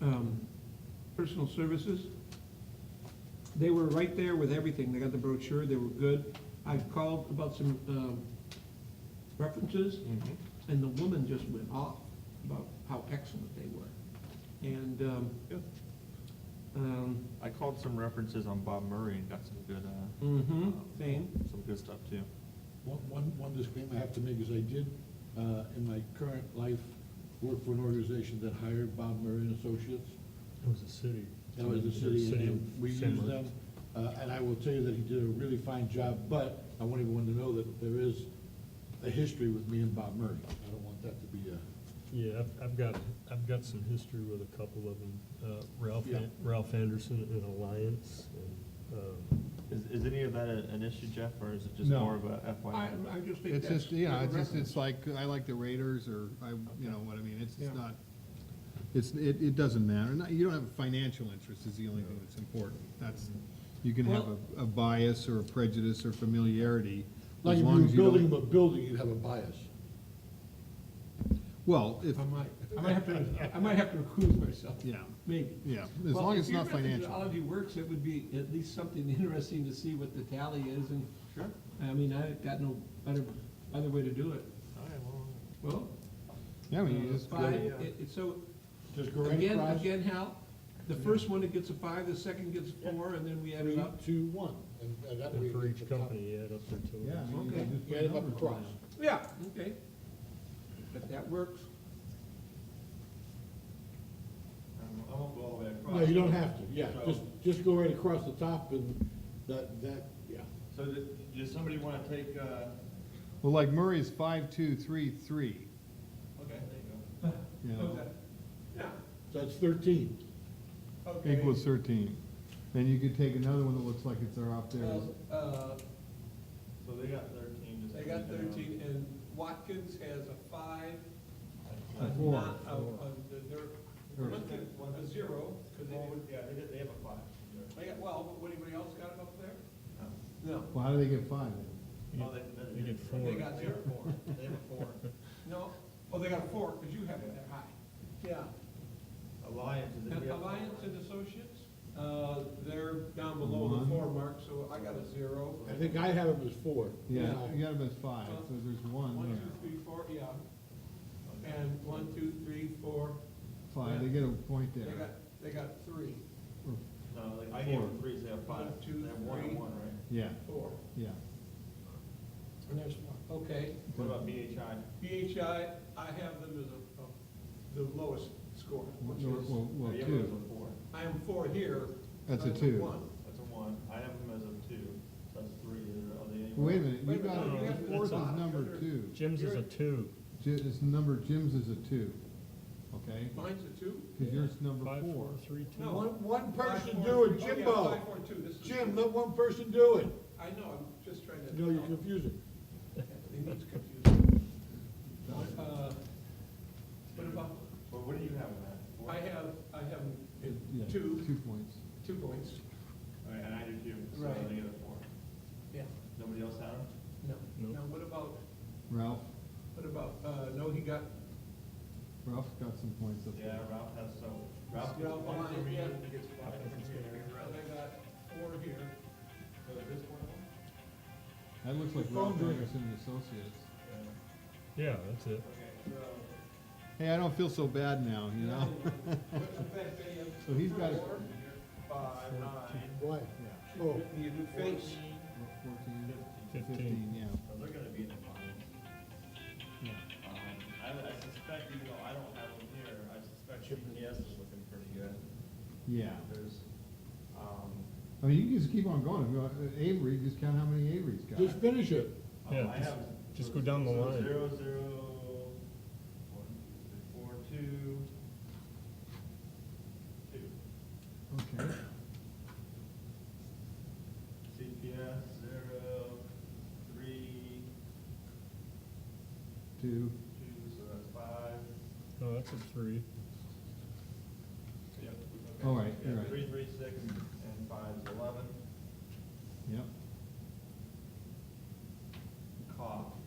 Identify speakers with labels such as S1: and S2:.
S1: um, personal services. They were right there with everything. They got the brochure, they were good. I called about some um, references, and the woman just went off about how excellent they were. And um,
S2: Good.
S1: um,
S2: I called some references on Bob Murray and got some good, uh,
S1: Mm-hmm,
S2: um,
S1: same.
S2: Some good stuff too.
S3: One, one, one disclaimer I have to make is I did, uh, in my current life, work for an organization that hired Bob Murray and Associates.
S4: It was a city.
S3: That was the city, and we
S4: Same-
S3: used
S4: same-
S3: them, uh, and I will tell you that he did a really fine job, but I want everyone to know that there is a history with me and Bob Murray. I don't want that to be a,
S4: Yeah, I've, I've got, I've got some history with a couple of them, uh, Ralph,
S3: Yeah.
S4: An- Ralph Anderson and Alliance, and, um,
S2: Is, is any of that a- an issue, Jeff, or is it just
S5: No.
S2: more of a
S1: I,
S2: FYI?
S1: I just think
S5: It's
S1: that's.
S5: just, yeah,
S1: good
S5: it's just,
S1: reference.
S5: it's like, I like the Raiders, or I, you know what I mean, it's,
S1: Yeah.
S5: it's not, it's, it, it doesn't matter, Not- you don't have a financial interest is the only thing that's important, that's, you can have
S1: Well-
S5: a, a bias or a prejudice or familiarity,
S3: like
S5: as
S3: if
S5: long
S3: you were
S5: as you
S3: building him
S5: don't,
S3: a building, you'd have a bias.
S5: well, if,
S1: I might, I might have to, I might have to recuse myself,
S5: yeah,
S1: maybe.
S5: yeah, as
S1: Well,
S5: long
S1: if
S5: as it's
S1: your
S5: not financial.
S1: methodology works, it would be at least something interesting to see what the tally is, and
S2: Sure.
S1: I mean, I got no better, other way to do it.
S2: All right, well,
S1: Well,
S5: Yeah, I mean, you
S1: uh,
S5: just go-
S1: five, it, it's so,
S3: Just go right
S1: again,
S3: across,
S1: again, Hal, the first one, it gets a five, the second gets four, and then we add it
S3: three,
S1: up.
S3: two, one, and and that way.
S4: and for
S3: you get
S4: each
S3: the top-
S4: company, you add up their total.
S5: Yeah, I mean, you
S1: Okay.
S5: can just
S3: You
S5: put
S3: add it up
S5: numbers
S3: across.
S5: down.
S1: Yeah, okay. But that works.
S2: I'm, I'm gonna go all the way across.
S3: No, you don't have to, yeah,
S2: So-
S3: just, just go right across the top and that, that, yeah.
S2: So did- does somebody wanna take, uh,
S5: Well, like Murray's five, two, three, three,
S2: okay, there
S5: you know,
S1: Yeah.
S3: So that's thirteen.
S5: equals thirteen, then you could take another one that looks like it's there up there,
S1: Uh,
S2: you go. So they got thirteen. just
S1: they
S2: to
S1: got
S2: leave it alone.
S1: thirteen, and Watkins has a five, a
S5: A four.
S1: not, a, a, they're,
S5: Or-
S1: a zero, because they
S2: Well,
S1: didn't,
S2: Yeah, they did, they have a five.
S1: they got, well, what, anybody else got it up there?
S2: No.
S1: No.
S5: well, how do they get five then?
S2: Oh, they, they-
S4: You
S2: they.
S4: get four.
S1: They got
S2: They have
S1: zero.
S2: a four, they have a four.
S1: No, oh, they got a four, because you have it that high. Yeah.
S2: Alliance is.
S1: And Alliance and Associates, uh, they're down below the
S5: One.
S1: four mark, so I got a zero.
S3: I think I have him as four.
S5: Yeah,
S1: Yeah.
S5: you got him as five, so there's one
S1: One,
S5: there.
S1: two, three, four, yeah. And one, two, three, four,
S5: Five, they get a point
S1: they
S5: there.
S1: got, they got three,
S2: No, like, I gave them
S5: Four.
S2: three, so they have
S1: One,
S2: five.
S1: two,
S2: They have one and
S1: three.
S2: one, right?
S5: Yeah,
S1: four,
S5: yeah.
S1: and there's one, okay.
S2: What about BHI?
S1: BHI, I have them as a, a- the lowest score,
S5: Well,
S1: which
S5: well,
S1: is,
S5: well, well,
S2: Oh, you have it as
S5: two,
S2: a four.
S1: I am four here.
S5: that's a
S1: I'm
S5: two.
S1: One.
S2: That's a one. I have them as a two, so that's three. Are they anywhere?
S5: Wait a minute, you
S1: Wait a
S5: got,
S1: minute, you got four
S5: yours is
S1: dots.
S5: number two.
S4: Jim's is a two,
S5: Ji- It's number, Jim's is a two, okay?
S1: Mine's a two?
S5: Cause yours is number
S4: five,
S5: four.
S4: four, three, two.
S1: No.
S3: One, one person
S1: Five,
S3: do
S1: four,
S3: it,
S1: three. Oh, yeah,
S3: Jimbo.
S1: five, four, two. This is-
S3: Jim, let one person do it.
S1: I know, I'm just trying to.
S3: No, you're confusing.
S1: It needs confusing. Uh, What about,
S2: But what do you have in that? Four?
S1: I have, I have
S5: Yeah,
S1: two,
S5: Two points.
S1: two points.
S2: All right, and I do two, so
S1: Right.
S2: they get a four.
S1: Yeah.
S2: Nobody else had them?
S1: No.
S4: No.
S1: Now, what about,
S5: Ralph,
S1: what about, uh, no, he got,
S5: Ralph's got some points up
S2: Yeah,
S5: there.
S2: Ralph has, so Ralph gets
S1: Ralph
S2: one,
S1: Lyons, yeah.
S2: he gets five, and
S1: I got four here.
S2: So this one?
S5: That looks like
S3: The phone
S5: Ralph
S3: ringer.
S5: Anderson and Associates.
S2: Yeah.
S4: Yeah, that's it.
S2: Okay, so,
S5: Hey, I don't feel so bad now, you know?
S1: What's the fact that you have
S5: So he's got a-
S1: four?
S2: five, nine,
S3: Why?
S5: Yeah,
S3: Oh,
S1: You do face.
S2: fourteen,
S5: fourteen,
S2: fifteen.
S4: Fifteen.
S5: fifteen, yeah,
S2: So they're gonna be in the finals.
S5: yeah.
S2: Um, I, I suspect, even though I don't have them here, I suspect GPS is looking pretty good.
S5: Yeah.
S2: There's, um,
S5: I mean, you can just keep on going. If you want, uh, Avery, just count how many Avery's got.
S3: just finish it.
S2: oh,
S4: Yeah,
S2: I
S4: just-
S2: have.
S4: just go down the
S2: so
S4: line.
S2: Zero, zero, one, two, three, four, two, two.
S5: Okay.
S2: CPS, zero, three,
S5: Two.
S2: two, so that's five.
S4: No, that's a three.
S2: Yep. okay.
S5: All right,
S2: Yeah,
S5: all right.
S2: Three, three, six, and five is eleven.
S5: Yep.
S2: Cough.
S1: Uh,